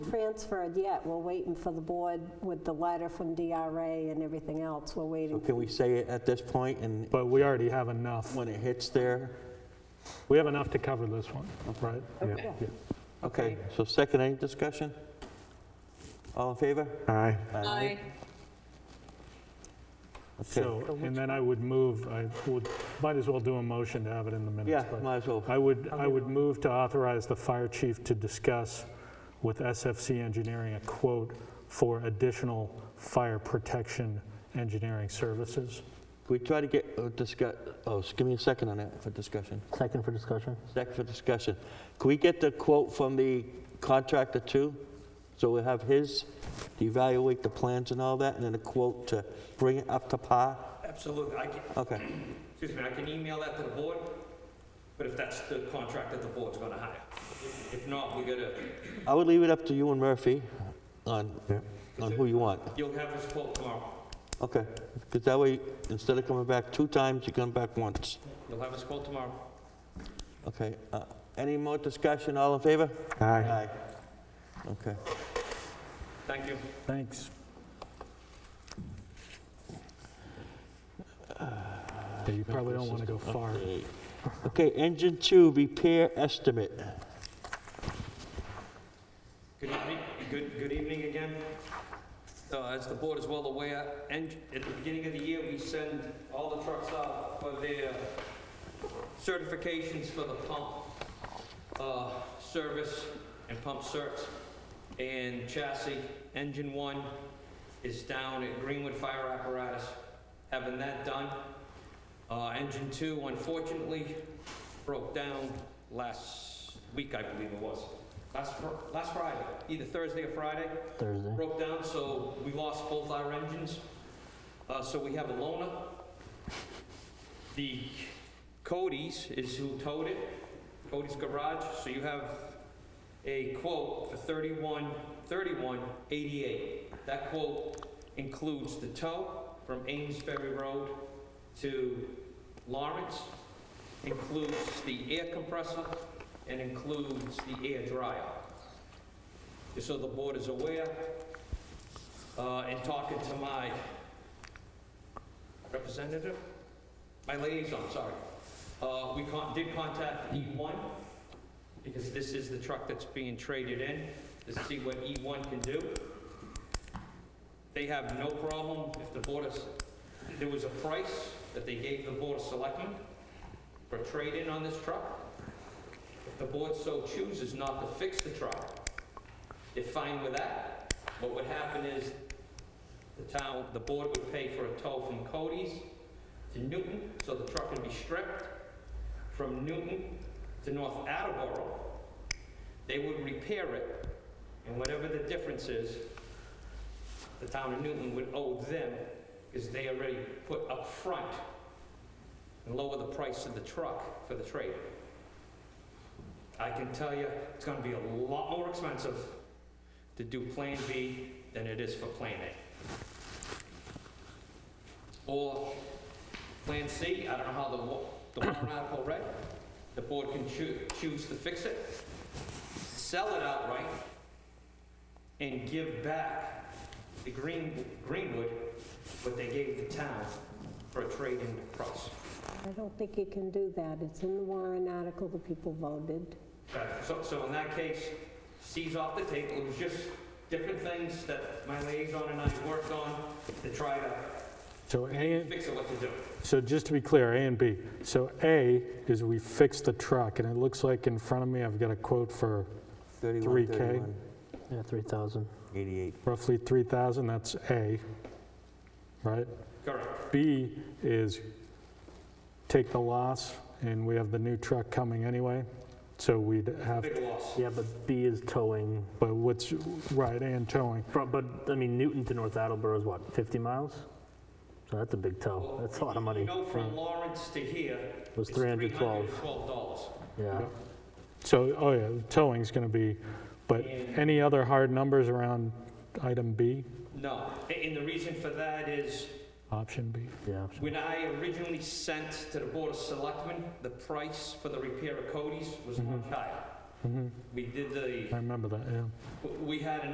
transferred yet. We're waiting for the board with the letter from DRA and everything else. We're So waiting. can we say it at this point, and But we already have enough. when it hits there? We have enough to cover this one, right? Okay. Yeah. Okay, so second, any discussion? All in favor? Aye. Aye. Okay, So, and then I would move, I would, might as well do a motion to have it in the yeah, minutes. but might as well. I would, I would move to authorize the fire chief to discuss with SFC Engineering a quote for additional fire protection engineering services. We try to get, uh, discuss, oh, s- give me a second on that for discussion. Second for discussion? Second for discussion. Can we get the quote from the contractor too? So we have his, to evaluate the plans and all that, and then a quote to bring it up to par? Absolutely. I can, Okay, excuse me, I can email that to the board, but if that's the contract that the board's gonna hire. If if not, we gotta, I would leave it up to you and Murphy on, Yeah. on who you want. you'll have his quote tomorrow. Okay, because that way, instead of coming back two times, you come back once. You'll have his quote tomorrow. Okay, uh, any more discussion, all in favor? Aye. Okay, Thank you. Thanks. You probably don't want to go far. Okay. okay, engine two repair estimate. Good evening, good, good evening again. Uh, As the board is well aware, eng- at the beginning of the year, we send all the trucks out for their certifications for the pump uh, service and pump certs and chassis. Engine one is down at Greenwood Fire Apparatus, having that done. Uh, Engine two unfortunately broke down last week, I believe it was. Last, Fri- last Friday, either Thursday or Friday, Thursday. broke down, so we lost both our engines. Uh, so we have a loaner. The Cody's is who towed it, Cody's Garage, so you have a quote for thirty-one, thirty-one eighty-eight. That quote includes the tow from Amesbury Road to Lawrence, includes the air compressor, and includes the air dryer. Just so the board is aware, uh, in talking to my representative, my liaison, sorry, uh, we con- did contact E1, because this is the truck that's being traded in, to see what E1 can do. They have no problem if the board is, there was a price that they gave the board of selectmen for trade-in on this truck. If the board so chooses not to fix the truck, they're fine with that. What would happen is the town, the board would pay for a tow from Cody's to Newton, so the truck would be stripped. From Newton to North Attleboro, they would repair it, and whatever the difference is, the town of Newton would owe them, because they already put up front and lower the price of the truck for the trade. I can tell you, it's gonna be a lot more expensive to do Plan B than it is for Plan A. Or Plan C, I don't know how the wa- the warrant article read. The board can choo- choose to fix it, sell it outright, and give back the Green Greenwood what they gave the town for a trade-in price. I don't think you can do that. It's in the warrant article, the people voted. Right, So, so in that case, C's off the table, it was just different things that my liaison and I worked on to try to So A, fix it what to do. so just to be clear, A and B. So A is we fixed the truck, and it looks like in front of me, I've got a quote for 31, 3K. 31, Yeah, 3,000. 88. roughly 3,000, that's A, right? Correct. B is take the loss, and we have the new truck coming anyway, so we'd have, Big loss. Yeah, but B is towing, but what's, right, and towing. fro- but, I mean, Newton to North Attleboro is what, 50 miles? So that's a big tow. That's a lot of money. You know, from Lawrence to here. It was it's $312. $312. Yeah. So, oh yeah, towing's going to be, but any other hard numbers around item B, No, a- and the reason for that is, option B? Yeah. when I originally sent to the Board of Selectmen, the price for the repair of Cody's was much higher. We did the, Mm-hmm, I remember that, yeah. we had an